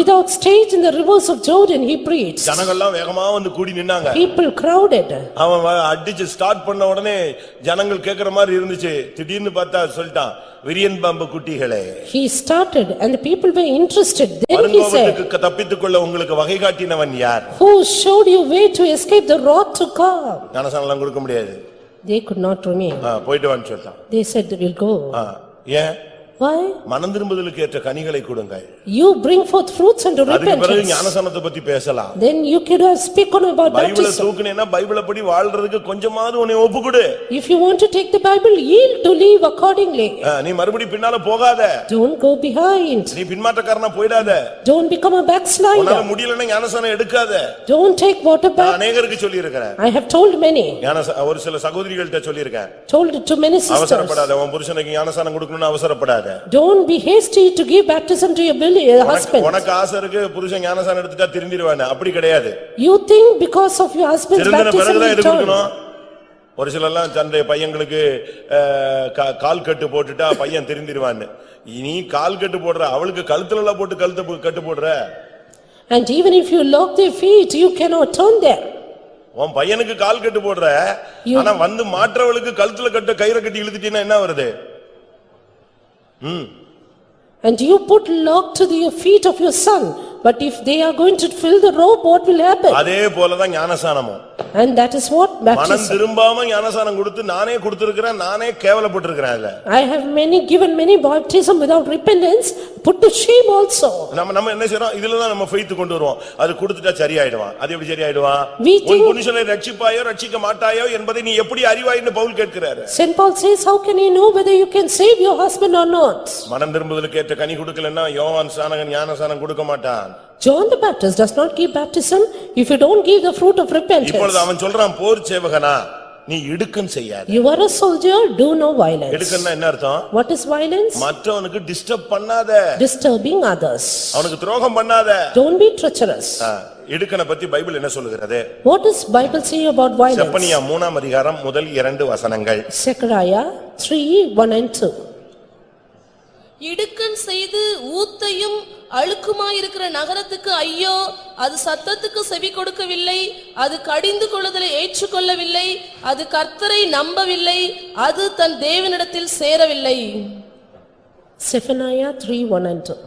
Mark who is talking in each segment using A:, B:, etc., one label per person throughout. A: Without stage in the rivers of Jordan, he preached.
B: ஜனங்கள்லாம் வேகமா வந்து கூடி நின்னாங்க
A: People crowded.
B: அவன் வ- அடிச்சு ஸ்டார்ட் பண்ண உடனே ஜனங்கள் கேக்குற மாதிரி இருந்துச்சு திடீர்னு பார்த்தா சொல்லிட்டான் விரியன் பாம்பு குட்டிகளே
A: He started and the people were interested. Then he said,
B: பரங்கோபத்துக்கு தப்பித்துக்கொள்ள உங்களுக்கு வகை காட்டினவன் யார்
A: "Who showed you way to escape the wrath to come?"
B: ஞானசானலாம் கொடுக்க முடியாது
A: They could not remain.
B: ஆ, போயிட்டு வான்னு சொல்லிட்டான்
A: They said, "We'll go."
B: ஆ, ஏன்
A: Why?
B: மனம் திரும்புதலுக்கு ஏற்ற கனிகளை கொடுங்கள்
A: You bring forth fruits unto
B: அதுக்கு பிறகு
A: repentance.
B: ஞானசானத்தை பத்தி பேசலாம்
A: Then you could have speak on about
B: பைபிள
A: baptism.
B: தூக்குனேன்னா பைபிள படி வாழ்றதுக்கு கொஞ்சமாவது உன்னை ஒப்புக்குடு
A: If you want to take the Bible, yield to leave accordingly.
B: ஆ, நீ மறுபடி பின்னால போகாத
A: Don't go behind.
B: நீ பின்மாற்றக்காரனா போயிடாத
A: Don't become a
B: உன்னால
A: backslider.
B: முடியலன்னா ஞானசானம் எடுக்காத
A: Don't take water
B: நான்
A: back.
B: அநேகருக்கு சொல்லியிருக்கிறேன்
A: I have told many,
B: ஞானசா- ஒரு சில சகோதரிகள்ட்ட சொல்லியிருக்கேன்
A: told it to many sisters.
B: அவசரப்படாத உன் புருஷனுக்கு ஞானசானம் கொடுக்கணும்னு அவசரப்படாத
A: Don't be hasty to give baptism to your belly-
B: உனக்கு-
A: husband.
B: உனக்கு ஆசை இருக்கு புருஷன் ஞானசானம் எடுத்துட்டா திருந்திருவானே அப்படி கிடையாது
A: You think because of your husband's
B: திருந்தின
A: baptism
B: பிறகுதான்
A: you
B: எது
A: turn.
B: கொடுக்கணும் ஒரு சிலர்லாம் தன்னுடைய பையங்களுக்கு அஹ், கா- கால் கட்டு போட்டுட்டா பையன் திருந்திருவான்னு நீ கால் கட்டு போடுற அவளுக்கு கழுத்துல எல்லாம் போட்டு கழுத்து போ- கட்டு போடுற
A: And even if you lock their feet, you cannot turn there.
B: உன் பையனுக்கு கால் கட்டு போடுற ஆனா வந்து மாற்றவளுக்கு கழுத்துல கட்டு கயிறை கட்டி இழுத்துட்டீங்கன்னா என்ன வருது
A: And you put lock to the feet of your son. But if they are going to fill the rope, what will happen?
B: அதே போலதான் ஞானசானமும்
A: And that is what
B: மனம்
A: baptism.
B: திரும்பாம ஞானசானம் கொடுத்து நானே கொடுத்திருக்கிறேன் நானே கேவலப்பட்டிருக்கிறேன் அதுல
A: I have many, given many baptism without repentance, put to shame also.
B: நம்ம நம்ம என்ன செய்றோம் இதுலதான் நம்ம ஃபெய்த் கொண்டு வருவோம் அது கொடுத்துட்டா சரியாயிடுவான் அது எப்படி சரியாயிடுவான்
A: We
B: உன்
A: think-
B: புருஷனை ரட்சிப்பாயோ ரட்சிக்க மாட்டாயோ என்பதை நீ எப்படி அறிவாயின்னு பவுல் கேட்கிறாரு
A: Saint Paul says, how can you know whether you can save your husband or not?
B: மனம் திரும்புதலுக்கு ஏற்ற கனி கொடுக்கலன்னா யோவான் சானகன் ஞானசானம் கொடுக்க மாட்டான்
A: John the Baptist does not give baptism if you don't give the fruit of repentance.
B: இப்பொழுது அவன் சொல்றான் போர் சேவகனா நீ இடுக்கன் செய்யாத
A: You are a soldier, do no violence.
B: இடுக்கன்னா என்ன அர்த்தம்
A: What is violence?
B: மற்றவனுக்கு டிஸ்டர்ப் பண்ணாத
A: Disturbing others.
B: அவனுக்கு துரோகம் பண்ணாத
A: Don't be treacherous.
B: ஆ, இடுக்கனை பத்தி பைபிள் என்ன சொல்லுகிறது
A: What does Bible say about violence?
B: Zephaniah மூணாம் அதிகாரம் முதல் இரண்டு வசனங்கள்
A: Zechariah 3, 1 and 2.
C: இடுக்கண் செய்து ஊத்தையும் அழுக்குமாயிருக்கிற நகரத்துக்கு ஐயோ அது சத்தத்துக்கு செவி கொடுக்கவில்லை அது கடிந்து கொள்ளுதலை ஏற்றுக்கொள்ளவில்லை அது கர்த்தரை நம்பவில்லை அது தன் தேவனிடத்தில் சேரவில்லை
A: Zephaniah 3, 1 and 2.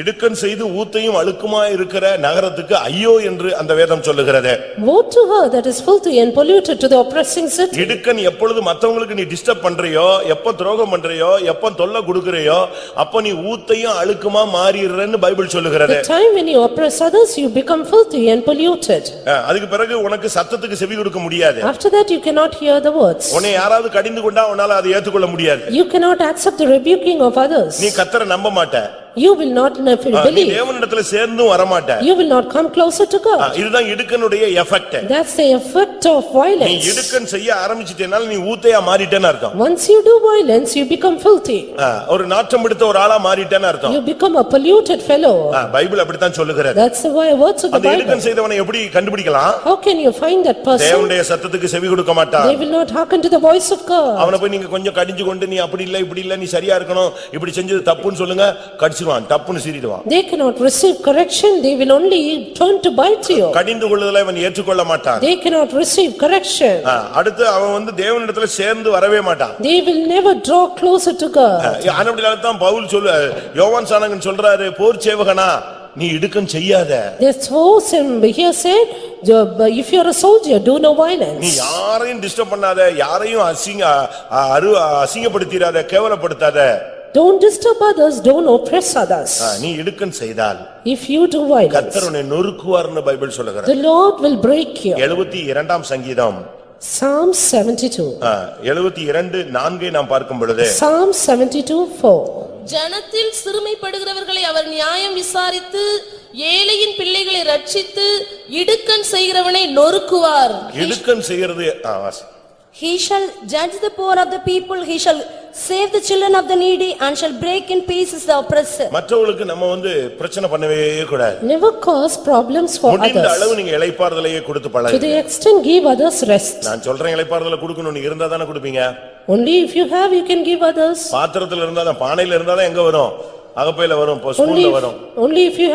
B: இடுக்கன் செய்து ஊத்தையும் அழுக்குமாய் இருக்கிற நகரத்துக்கு ஐயோ என்று அந்த வேதம் சொல்லுகிறது
A: Woe to her that is filthy and polluted to the oppressing city.
B: இடுக்கன் எப்பொழுது மத்தவங்களுக்கு நீ டிஸ்டர்ப் பண்றியோ எப்ப துரோகம் பண்றியோ எப்ப தொல்லை கொடுக்கறியோ அப்ப நீ ஊத்தையும் அழுக்குமா மாறிடுறன்னு பைபிள் சொல்லுகிறது
A: The time when you oppress others, you become filthy and polluted.
B: அஹ், அதுக்கு பிறகு உனக்கு சத்தத்துக்கு செவி கொடுக்க முடியாது
A: After that, you cannot hear the words.
B: உன்னை யாராவது கடிந்து கொண்டா உன்னால அதை ஏத்துக்கொள்ள முடியாது
A: You cannot accept the rebuking of others.
B: நீ கத்தரை நம்ப மாட்ட
A: You will not never
B: அஹ், நீ
A: believe.
B: தேவனிடத்துல சேர்ந்தும் வரமாட்ட
A: You will not come closer to God.
B: அஹ், இதுதான் இடுக்கனுடைய effect
A: That's the effect of
B: நீ
A: violence.
B: இடுக்கன் செய்ய ஆரம்பிச்சிட்டேனால நீ ஊத்தையா மாறிட்டேன்னு அர்த்தம்
A: Once you do violence, you become filthy.
B: ஆ, ஒரு நாற்றம் எடுத்த ஒரு ஆளா மாறிட்டேன்னு அர்த்தம்
A: You become a polluted fellow.
B: ஆ, பைபிள் அப்படித்தான் சொல்லுகிறது
A: That's the wi- words of the
B: அந்த
A: Bible.
B: இடுக்கன் செய்தவனை எப்படி கண்டுபிடிக்கலாம்
A: How can you find that person?
B: தேவனுடைய சத்தத்துக்கு செவி கொடுக்க மாட்டான்
A: They will not Uh. hearken to the voice of God.
B: அவனை போய் நீங்க கொஞ்சம் கடிஞ்சு கொண்டு நீ அப்படி இல்ல இப்படி இல்ல நீ சரியா இருக்கணும் இப்படி செஞ்சது தப்புன்னு சொல்லுங்க கடிச்சிருவான் தப்புன்னு சீறிடுவான்
A: They cannot receive correction. They will only turn to bite you.
B: கடிந்து கொள்ளுதல இவன் ஏற்றுக்கொள்ள மாட்டான்
A: They cannot receive correction.
B: ஆ, அடுத்து அவன் வந்து தேவனிடத்துல சேர்ந்து வரவே மாட்டான்
A: They will never draw closer to
B: ah,
A: God.
B: ஆனபடியால்தான் Pavul சொல்லு யோவான் சானகன் சொல்றாரு போர் சேவகனா நீ இடுக்கன் செய்யாத
A: That's what Sam here said, uh, if you are a soldier, do no
B: நீ
A: violence.
B: யாரையும் டிஸ்டர்ப் பண்ணாத யாரையும் அசிங்க அ- அரு அசிங்கப்படுத்திராத கேவலப்படுத்தாத
A: Don't disturb others, don't oppress
B: ah,
A: others.
B: நீ இடுக்கன் செய்தால்
A: If you do violence,
B: கர்த்தர் உன்னை நொறுக்குவார்னு பைபிள் சொல்லுகிறது
A: the Lord will break you.
B: எழுபத்தி இரண்டாம் சங்கீதம்
A: Psalm seventy-two,
B: ஆ, எழுபத்தி இரண்டு நான்கை நாம் பார்க்கும் பொழுது
A: Psalm seventy-two four.
C: ஜனத்தில் சிறுமைப்படுகிறவர்களை அவர் நியாயம் விசாரித்து ஏழையின் பிள்ளைகளை ரட்சித்து இடுக்கண் செய்கிறவனை நொறுக்குவார்
B: இடுக்கன் செய்கிறது ஆ, வாசி.
D: He shall judge the poor of the people, he shall save the children of the needy and shall break in pieces the oppressor.
B: மற்றவங்களுக்கு நம்ம வந்து பிரச்சனை பண்ணவே கூடாது
A: Never cause problems for
B: முடிந்த
A: others.
B: அளவு நீங்க இளைப்பாறுதலையே கொடுத்து
A: To
B: பழகுங்க
A: the extent give others rest.
B: நான் சொல்றேன் இளைப்பாறுதலை கொடுக்கணும் நீ இருந்தா தானே கொடுப்பீங்க
A: Only if you have, you can give others.
B: பாத்திரத்துல இருந்தா தான் பானையில இருந்தா தான் எங்க வரும் அகப்பையில வரும் இப்போ
A: Only,
B: ஸ்பூன்ல
A: if-
B: வரும்
A: only if you